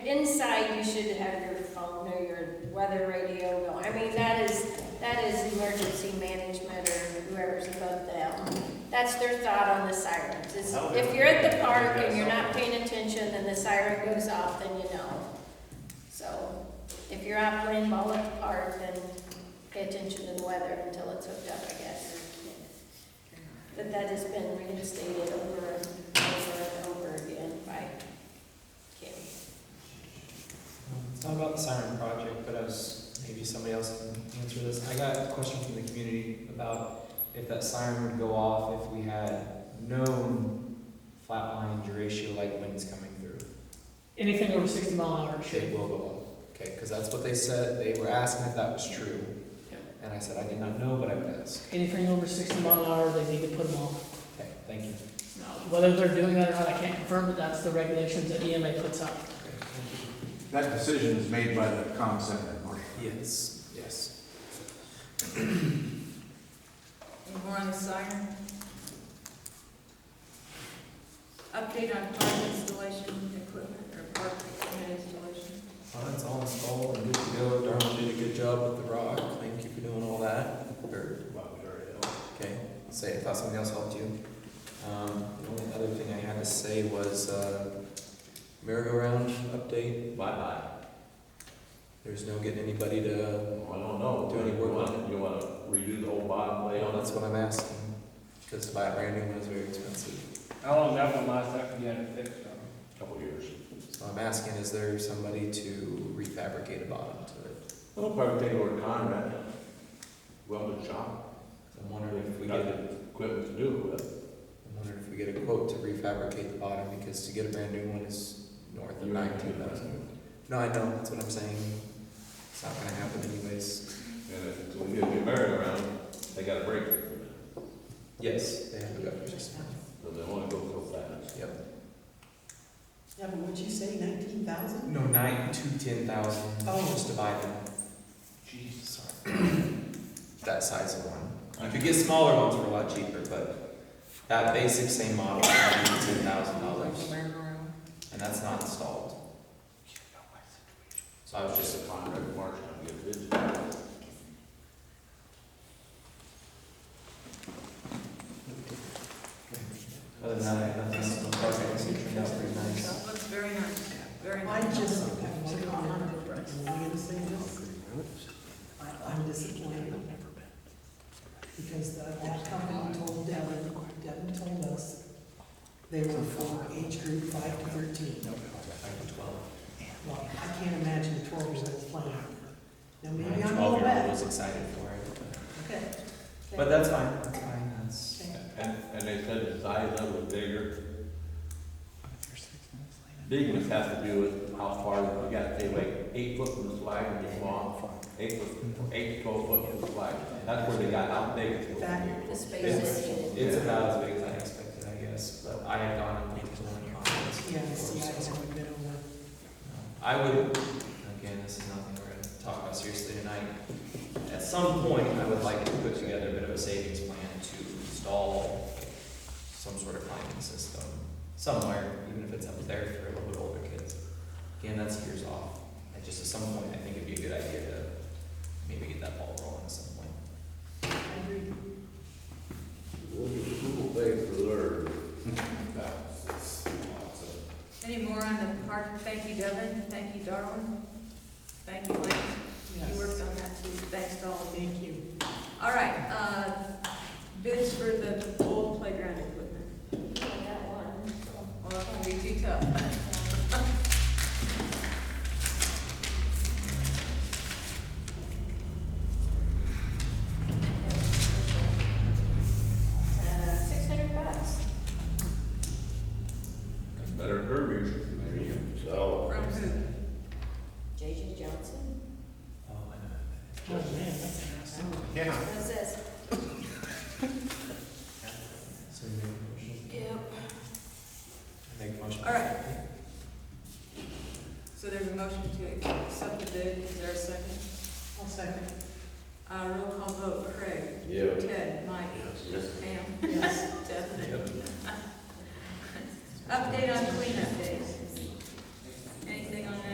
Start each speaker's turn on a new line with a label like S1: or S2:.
S1: Inside, you should have your phone or your weather radio going. I mean, that is, that is emergency management or whoever's above them. That's their thought on the sirens. It's-
S2: No,
S1: If
S2: they-
S1: you're at the park
S2: they-
S1: and you're not paying attention and the siren goes off, then you know. So if you're out playing ball at the park, then pay attention to the weather until it's hooked up, I guess. But that has been reinstated over and over and over again by Kim.
S3: It's not about the siren project, but I was, maybe somebody else can answer this. I got a question from the community about if that siren would go off if we had known flatline ratio like winds coming through.
S4: Anything over sixty mile an hour
S3: It
S4: should.
S3: will go off, okay, because that's what they said, they were asking if that was true.
S4: Yeah.
S3: And I said, I did not know, but I would ask.
S4: Anything over sixty mile an hour, they need to put them off.
S3: Okay, thank you.
S4: Now, Whether they're doing that or not, I can't confirm, but that's the regulations that EMA puts out.
S5: That decision is made by the comm center.
S3: Yes, yes.
S6: Any more on the siren? Update on park installation equipment or park equipment installation?
S2: Well, that's all installed and good to go. Darwin did a good job with the rock. Thank you for doing all that. Or, okay, say, I thought somebody else helped you. Um, the only other thing I had to say was, uh, merry-go-round update, bye-bye. There's no getting anybody to,
S7: I don't know.
S2: Do any work on
S7: You wanna redo the whole bottom
S2: you know,
S7: layout?
S2: that's what I'm asking. Because to buy a brand new one is very expensive.
S8: How long that one lasts after you had it fixed though?
S7: Couple years.
S2: So I'm asking, is there somebody to refabricate a bottom to it?
S7: Well, probably take over to Conrad, welded shop,
S2: So I'm wondering if we
S7: Got
S2: get
S7: the equipment to do it with.
S2: I wondered if we get a quote to refabricate the bottom, because to get a brand new one is north of
S7: You ain't
S2: nineteen
S7: gonna do
S2: thousand. No, I know, that's what I'm saying. It's not gonna happen anyways.
S7: And if it's gonna be a new merry-go-round, they gotta break it,
S2: Yes. They have a governor system.
S7: so they wanna go so fast.
S2: Yep.
S6: Yeah, but would you say nineteen thousand?
S3: No, nine to ten thousand,
S6: Oh.
S3: just to buy them.
S8: Jeez.
S3: Sorry. That size of one. You could get smaller ones for a lot cheaper, but that basic same model, nine to ten thousand dollars,
S6: Merry-go-round.
S3: and that's not installed. So I was just
S7: Just a Conrad Marsh, I'm getting busy.
S3: Other than that, I have nothing else on the project, so it turned out pretty nice.
S6: Looks very nice, very
S9: I
S6: nice.
S9: just have one comment, I'm gonna say this. I- I'm disappointed. Because the- that company told Devin, Devin told us, they were for age group five to thirteen.
S3: Five to twelve.
S9: Well, I can't imagine a twelve-year-old playing. Now, maybe
S3: My
S9: I'm all
S3: twelve-year-old
S9: bad.
S3: was excited for it,
S9: Okay.
S3: but- but that's fine, that's fine, that's.
S7: And, and they said the size of it was bigger. Bigness has to do with how far, you gotta stay like eight foot from the flag when you fall, eight foot, eight to twelve foot from the flag. That's where they got out big. it's supposed to
S1: The space
S3: It's-
S1: is needed.
S3: It's about as big as I expected, I guess, but I had gone and looked at the one you're on.
S9: Yeah, see, I haven't been over.
S3: I would, again, this is nothing we're gonna talk about seriously tonight. At some point, I would like to put together a bit of a savings plan to install some sort of climbing system somewhere, even if it's up there for a little bit older kids. Again, that's years off. I just, at some point, I think it'd be a good idea to maybe get that ball rolling at some point.
S7: Google Pay for their balances.
S6: Any more on the park? Thank you, Devin. Thank you, Darwin. Thank you, Lance. You
S9: Yes.
S6: worked on that too. Thanks to all of you.
S9: Thank you.
S6: All right, uh, bids for the old playground equipment.
S1: Yeah, that one.
S6: Well, that's gonna be too tough.
S1: Uh, six hundred bucks.
S7: Better verbiage, maybe. So.
S6: From who?
S1: JJ Johnson.
S3: Oh, I know.
S4: Oh, man, that's interesting.
S5: Yeah.
S1: What is this?
S3: So you make a motion?
S1: Yep.
S3: Make a motion.
S6: All right. So there's a motion to accept the bid. Is there a second?
S9: I'll second.
S6: Uh, roll call vote, Craig.
S7: Yeah.
S6: Ted, Mike,
S7: Yes.
S6: Pam,
S9: Yes.
S6: Devin.
S3: Yep.
S6: Uh, Update on cleanup day.